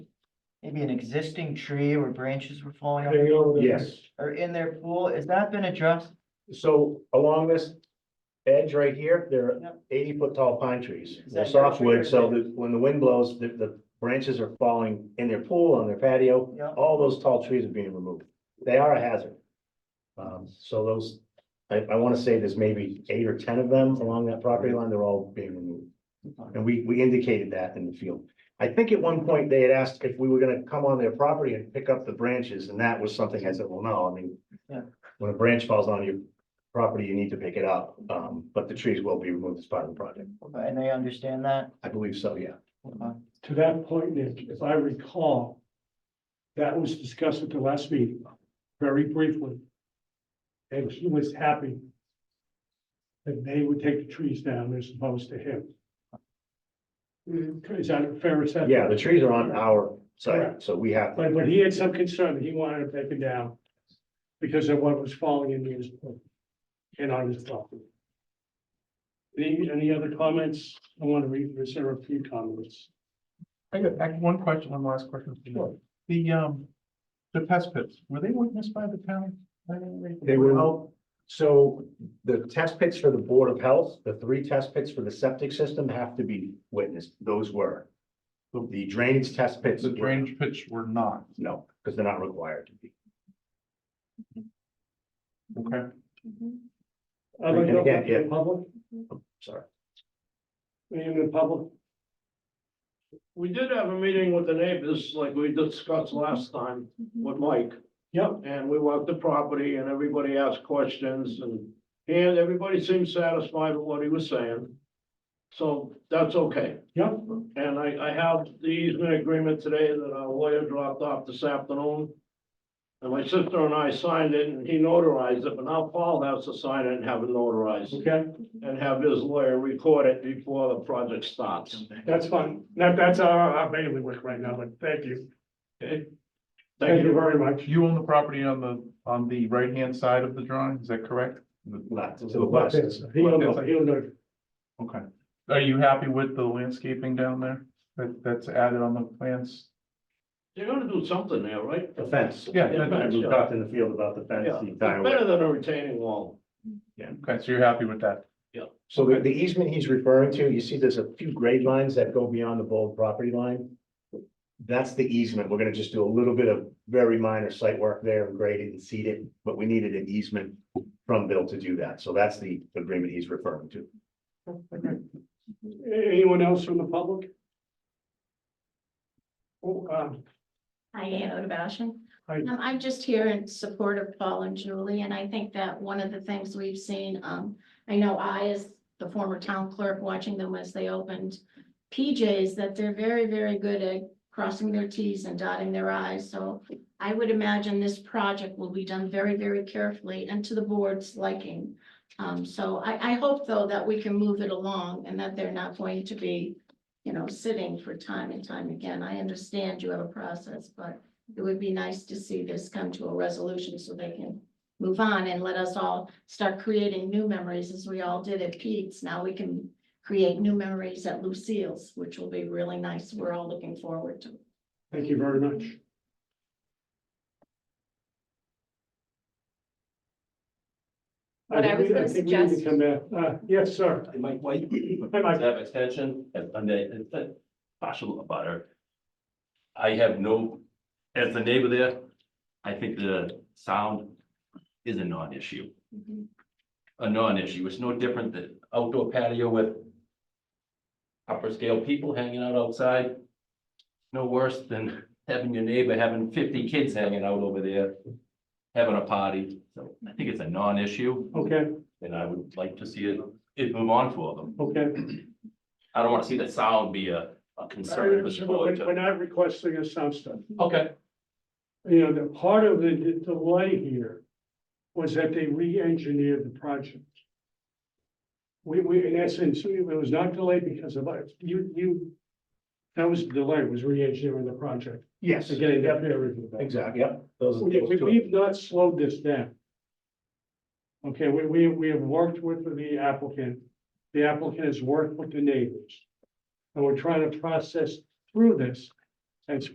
maybe an existing tree or branches were falling off Hang on. Yes, or in their pool, has that been addressed? so along this edge right here, there are Yep. eighty foot tall pine trees. Is They're that your tree or softwood, so yours? that when the wind blows, the, the branches are falling in their pool, on their patio. Yep. All those tall trees are being removed. They are a hazard. Um, so those, I, I wanna say there's maybe eight or ten of them along that property line, they're all being removed. And we, we indicated that in the field. I think at one point they had asked if we were gonna come on their property and pick up the branches, and that was something I said, well, no, I mean. Yeah. When a branch falls on your property, you need to pick it up, um, but the trees will be removed as part of the project. And they understand that? Uh, I believe so, yeah. Okay. To that point, Nick, if I recall, that was discussed at the last meeting, very briefly. And he was happy that they would take the trees down as opposed to him. Is that a fair Mm-hmm. assessment? Yeah, the trees are on our side, so we have, But, but he had some concern that he wanted it taken down because of what was falling into his pool and on his property. Any, any other comments? I want to read, reserve a few comments. I got, I got one question, one last question. for you. The, um, the pest pits, were they witnessed by the town? by any way? they were, all- so the test pits for the Board of Health, the three test pits for the septic system have to be witnessed. Those were. The drainage test pits. The drainage pits were not, No, because they're not required to be. okay? Other And again, comments from yeah. Public, Sorry. any in the public? We did have a meeting with the neighbors, like we discussed last time with Mike, Yep, and we walked the property and everybody asked questions and. And everybody seemed satisfied with what he was saying. So that's okay. yep, And I, I have the easement agreement today that our lawyer dropped off this afternoon. And my sister and I signed it and he notarized it, but now Paul has to sign it and have it notarized okay, and have his lawyer record it before the project starts. that's fine. That, that's our, our bailiwick right now, but thank you. Okay? Thank you very much. You own the property on the, on the right-hand side of the drawing, is that correct? The- Left, to the west. He'll know, he'll know. Okay. Are you happy with the landscaping down there that, that's added on the plans? They're gonna do something there, right? The fence. Yeah, Yeah, that- We talked in the field about the fence. Yeah, the it's entire better way. than a retaining wall. okay, so you're happy with that? So the, the easement he's referring to, you see there's a few grade lines that go beyond the bold property line. That's the easement. We're gonna just do a little bit of very minor site work there and grade it and seed it, but we needed an easement from Bill to do that. So that's the agreement he's referring to. Anyone else from the public? Oh, um, Hi, Anna Bashan. Hi. Um, I'm just here in support of Paul and Julie, and I think that one of the things we've seen, um, I know I, as the former town clerk, watching them as they opened PJs, that they're very, very good at crossing their Ts and dotting their Is, so I would imagine this project will be done very, very carefully and to the board's liking. Um, so I, I hope, though, that we can move it along and that they're not going to be you know, sitting for time and time again. I understand you have a process, but it would be nice to see this come to a resolution so they can move on and let us all start creating new memories as we all did at Pete's. Now we can create new memories at Lucille's, which will be really nice. We're all looking forward to. it. thank you very much. What I was think we- gonna think we need to suggest- Come back, uh, yes, sir. Mike White. Hi, Mike. Have extension and under partial abutter. I have no, as the neighbor there, I think the sound is a non-issue, a non-issue. It's no different than outdoor patio with upper scale people hanging out outside. No worse than having your neighbor having fifty kids hanging out over there, having a party. So I think it's a non-issue Okay, and I would like to see it, it move on for them. okay. I don't wanna see that sound be a, a concern for the board We're to, not requesting a sound study. okay, you know, the part of the the delay here was that they re-engineered the project. We, we, in essence, it was not delayed because of us. You, you, that was the delay, was re-engineering the project Yes. to getting that Yep, peer review. back. Exactly, yep. Those are We, those we- two. we've not slowed this down. Okay, we, we, we have worked with the applicant, the applicant has worked with the neighbors. And we're trying to process through this as